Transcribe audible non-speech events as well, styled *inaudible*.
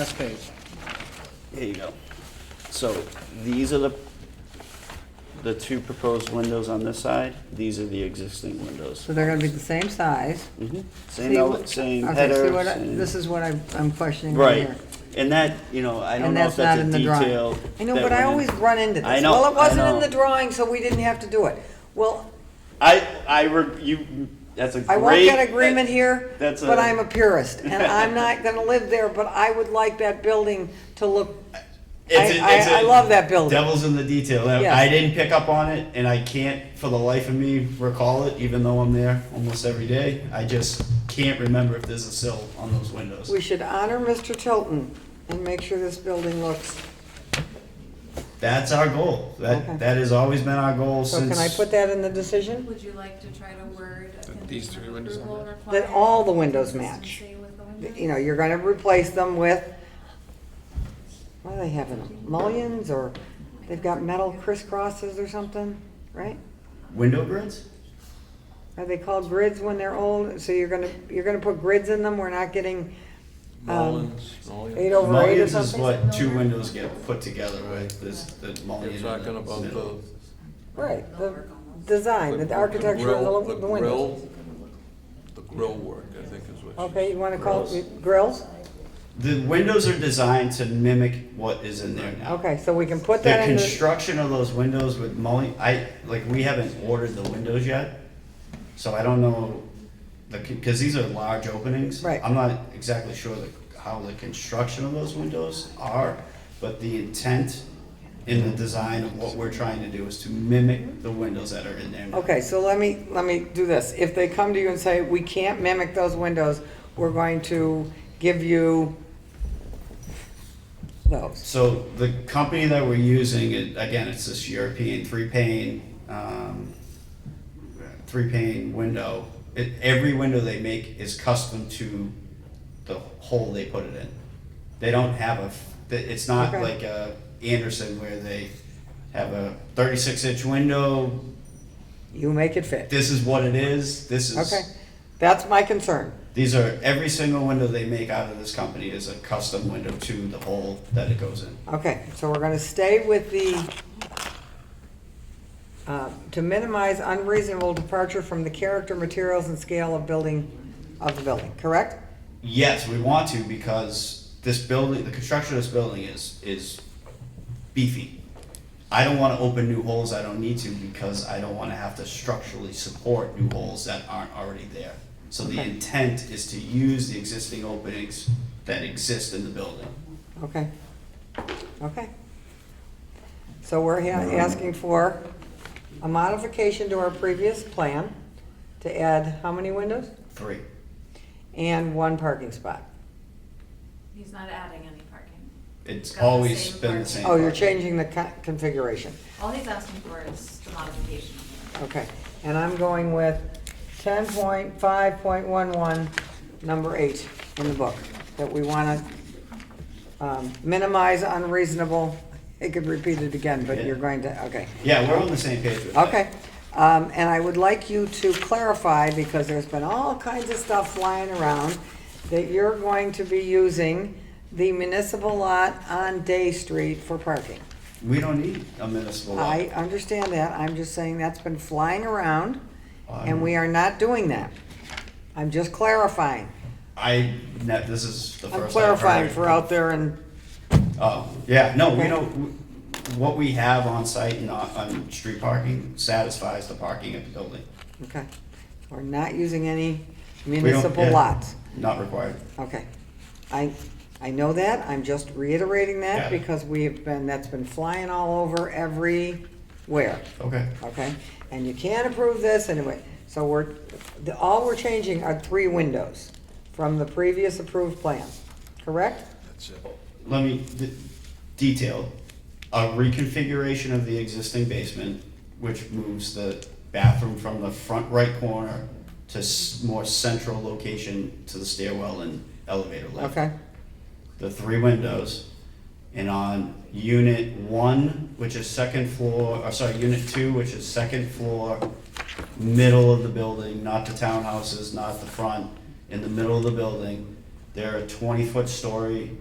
Last page. Here you go. So these are the, the two proposed windows on this side. These are the existing windows. So they're gonna be the same size. Mhm. See Same what- outlet, same okay, see header, what I- same- This is what I'm, I'm questioning right Right. here. And that, you know, I don't And know if that's not that's a in the drawing. detail. I know, that but went I in. always run into this. I know, Well, it I wasn't in know. the drawing, so we didn't have to do it. Well, I, I, re- you, that's a great. I won't get agreement here, That's but a- I'm a purist, *laughs* and I'm not gonna live there, but I would like that building to look, It's a- I- it's a- I- I love that building. Devil's in the detail. I- Yes. I didn't pick up on it, and I can't, for the life of me, recall it, even though I'm there almost every day. I just can't remember if there's a sill on those windows. we should honor Mr. Tilton and make sure this building looks. That's our goal. Okay. That, that has always been our goal So since. can I put that in the decision? Would you like to try to word? a these condition three of windows on approval there? That requiring all the windows match. consistency with the windows? You know, you're gonna replace them with, what do they have in them, mullions, or they've got metal crisscrosses or something, right? Window grids? Are they called grids when they're old? So you're gonna, you're gonna put grids in them, we're not getting um, Mullins, Mullins. eight over eight or Mullions is something? what two windows get put together with, this, the mullion. You're and the talking about the. sill. Right, the design, the architecture grill- of the the the windows. grill- The grill work, I think is what she's. Okay, you wanna call it grills? The windows are designed to mimic what is in there now. Okay, so we can put The that in the, construction of those windows with mullion, I, like, we haven't ordered the windows yet, so I don't know, the, because these are large openings. Right. I'm not exactly sure the, how the construction of those windows are, but the intent in the design of what we're trying to do is to mimic the windows that are in there now. okay, so let me, let me do this. If they come to you and say, we can't mimic those windows, we're going to give you those. So the company that we're using, it- again, it's this European three-pane, um, three-pane window. It, every window they make is custom to the hole they put it in. They don't have a, f- it's not Okay. like a Anderson where they have a thirty-six inch window. You make it fit. This is what it is, this Okay, is, that's my concern. these are, every single window they make out of this company is a custom window to the hole that it goes in. Okay, so we're gonna stay with the, uh, to minimize unreasonable departure from the character, materials, and scale of building, of the building, correct? Yes, we want to because this building, the construction of this building is, is beefy. I don't wanna open new holes I don't need to because I don't wanna have to structurally support new holes that aren't already there. So the Okay. intent is to use the existing openings that exist in the building. Okay, okay. So we're ha- asking for a modification to our previous plan to add how many windows? Three. And one parking spot. He's not adding any parking. It's Got the always same been the part. same. Oh, you're part. changing the co- configuration. All he's asking for is the modification. of the- Okay, and I'm going with ten point five point one one, number eight in the book, that we wanna, um, minimize unreasonable, it could repeat it again, but you're going to, okay. Yeah, we're on the same page with that. Okay, um, and I would like you to clarify, because there's been all kinds of stuff flying around, that you're going to be using the municipal lot on Day Street for parking. We don't need a municipal lot. I understand that, I'm just saying that's been flying around, and Um, we are not doing that. I'm just clarifying. I, that- this is the 1st I'm clarifying for out there and, Oh, yeah, no, we Okay. don't, w- what we have on site and on, on street parking satisfies the parking of the building. okay, we're not using any We don't- municipal yeah, lots. Not required. Okay. I, I know that, I'm just reiterating that Got it. because we have been, that's been flying all over everywhere, Okay. okay? And you can't approve this anyway. So we're, the, all we're changing are three windows from the previous approved plan, correct? That's it. Let me, d- detail, a reconfiguration of the existing basement, which moves the bathroom from the front right corner to s- more central location to the stairwell and elevator lift. Okay, the three windows. And on unit one, which is second floor, or sorry, unit two, which is second floor, middle of the building, not the townhouses, not the front, in the middle of the building, there are twenty-foot story